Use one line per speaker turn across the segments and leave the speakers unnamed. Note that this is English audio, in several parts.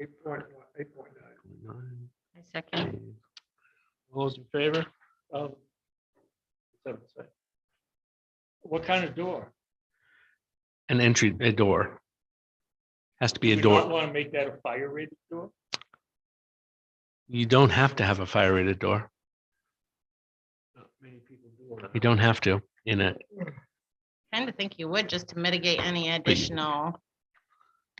Eight point one, eight point nine.
I second.
All those in favor of? seven six? What kind of door?
An entry, a door. Has to be a door.
Want to make that a fire rated door?
You don't have to have a fire rated door.
Not many people do.
You don't have to in a,
Kind of think you would just to mitigate any additional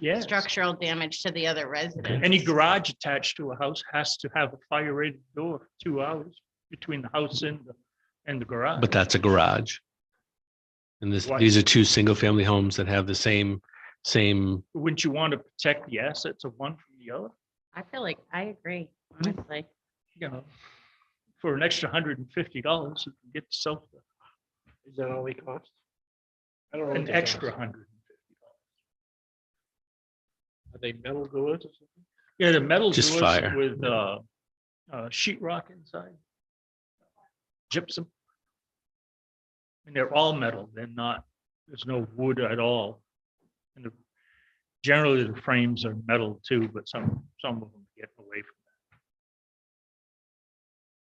Yeah.
structural damage to the other residents.
Any garage attached to a house has to have a fire rated door, two hours between the house and, the and the garage.
but that's a garage. And this,
Why-
these are two single family homes that have the same, same,
Wouldn't you want to protect the assets of one from the other?
I feel like I agree, honestly.
You know, for an extra hundred and fifty dollars, you can get yourself
Is that all they cost? I don't know. what
an
they
extra
cost.
hundred.
Are they metal doors or something?
Yeah, the metal
Just
doors
fire.
with uh, uh, sheet rock inside, gypsum. And they're all metal. They're not. There's no wood at all. And the, generally, the frames are metal too, but some some of them get away from.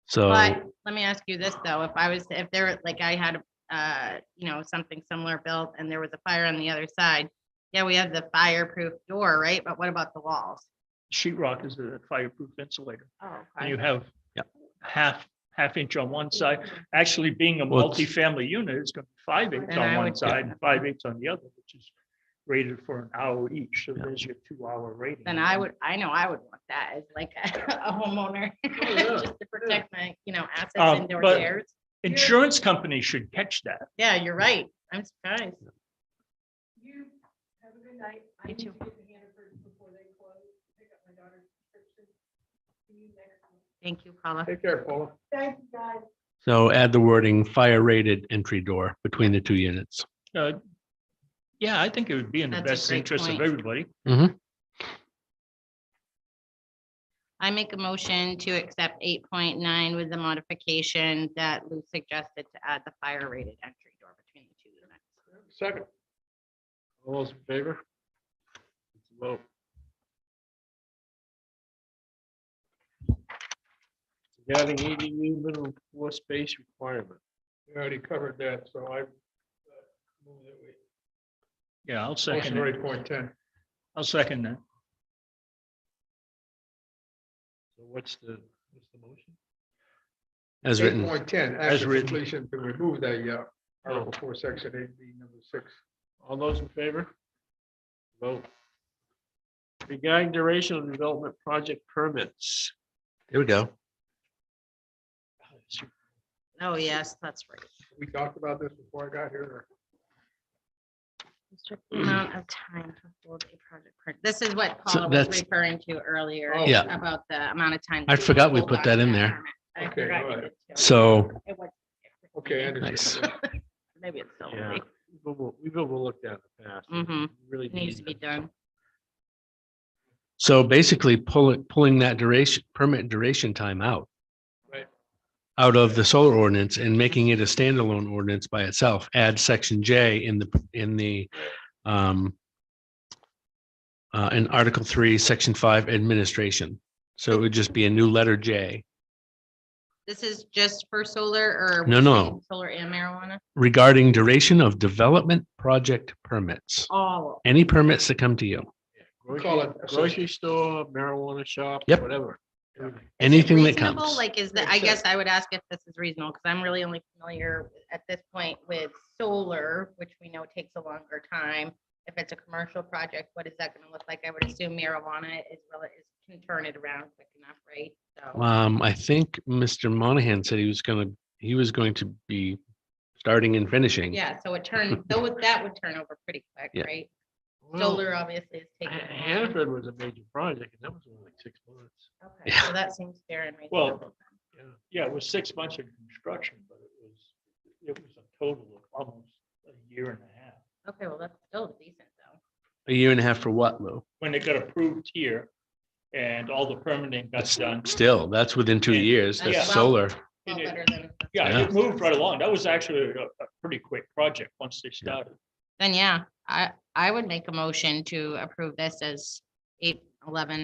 so
But let me ask you this, though, if I was, if there, like I had, uh, you know, something similar built and there was a fire on the other side. Yeah, we have the fireproof door, right? But what about the walls?
Sheet rock is a fireproof insulator,
Oh,
and you have
Yep.
half half inch on one side. Actually, being a
Well, it's-
multifamily unit, it's going to be five eighths
Then
on
I
one
would-
side and five eighths on the other, which is rated for an hour each. So
Yeah.
there's your two hour rating.
Then I would, I know I would want that as like a homeowner,
yeah,
just to protect my, you know, assets
Um,
and
Oh, but-
doors.
Insurance companies should catch that.
Yeah, you're right. I'm surprised.
You have a good night. I
You
need to
too.
get to Hannaford before they close, pick up my daughter's prescription. See you next week.
Thank you, Paula.
Take care, Paula.
Thank you, guys.
So add the wording fire rated entry door between the two units.
Uh, Yeah, I think it would be in the
That's a
best
great
interest of
point.
everybody.
I make a motion to accept eight point nine with the modification that Lou suggested to add the fire rated entry door between the two units.
Second. All those in favor? Let's Vote. Regarding EDU minimum floor space requirement. We already covered that, so I. uh, move that we-
Yeah, I'll
Motion
second
for
it.
eight point ten.
I'll second that.
So what's the, what's the motion?
As written,
Eight point ten,
As
after
written.
completion, to remove that, yeah, Article four, section eight, B, number six. All those in favor? Vote. Regarding duration of development project permits.
there we go.
Oh, yes, that's right.
We talked about this before I got here.
Restrict the Amount of time to hold a project. per- This is what
So
Paula was
that's-
referring to earlier.
Oh.
Yeah.
About the amount of time.
I
to
forgot we
hold
put
on
that
to
in there.
permit. I
Okay,
forgot
all
you
right.
did too.
So
It was-
Okay, I understand.
Maybe it's still.
Yeah. We've over- we've overlooked that in the past.
Mhm.
Really
Needs to be done.
So basically pulling, pulling that duration, permit duration time out.
Right.
Out of the solar ordinance and making it a standalone ordinance by itself. Add section J in the, in the, um, uh, in Article three, section five, administration. So it would just be a new letter J
This is just for solar or? are we
No, no.
saying Solar and marijuana,
regarding duration of development project permits.
all.
Any permits that come to you,
Call it grocery store, marijuana shop,
Yep.
whatever.
Is it
anything that
reasonable?
comes.
Like, is that, I guess I would ask if this is reasonable, because I'm really only familiar at this point with solar, which we know takes a longer time. If it's a commercial project, what is that gonna look like? I would assume marijuana is, rela- is can turn it around quick enough, right? So,
Um, I think Mr. Monahan said he was gonna, he was going to be starting and finishing.
yeah, so it turns, though, that would turn over pretty quick,
Yeah.
right?
Well,
Solar obviously is
Ha-
taking. longer.
Hannaford was a major project and that was only like six months.
Okay, so that seems fair and
Well,
reasonable.
Yeah.
Yeah, it was six months of construction, but it was, it was a total of almost a year and a half.
Okay, well, that's still decent though.
A year and a half for what, Lou?
When it got approved here and all the permitting got done.
Still, that's within two
Yeah.
years.
That's
That's
well-
solar.
Well,
it-
better than.
Yeah,
Yeah.
it moved right along. That was actually a, a pretty quick project once they started.
Then, yeah, I, I would make a motion to approve this as eight, eleven